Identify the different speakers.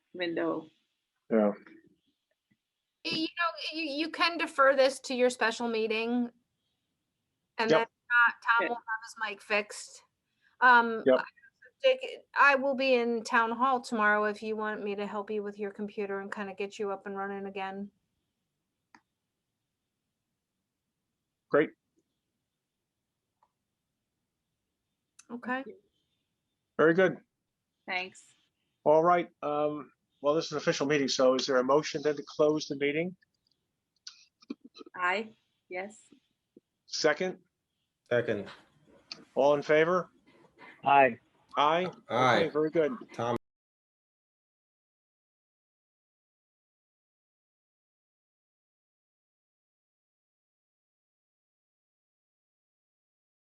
Speaker 1: window.
Speaker 2: Yeah,
Speaker 3: You know, you, you can defer this to your special meeting. And
Speaker 2: Yep. Eh.
Speaker 3: then uh, Tom
Speaker 1: Okay.
Speaker 3: will have his mic fixed. Um,
Speaker 2: Yep.
Speaker 3: Dick, I will be in town hall tomorrow if you want me to help you with your computer and kind of get you up and running again.
Speaker 2: Great.
Speaker 3: Okay,
Speaker 2: very good.
Speaker 1: Thanks.
Speaker 2: All right. Um, well, this is an official meeting, so is there a motion then to close the meeting?
Speaker 1: Aye, yes.
Speaker 2: Second,
Speaker 4: Second.
Speaker 2: all in favor?
Speaker 5: Aye.
Speaker 2: Aye? Okay,
Speaker 4: Aye.
Speaker 2: Very good.
Speaker 4: Tom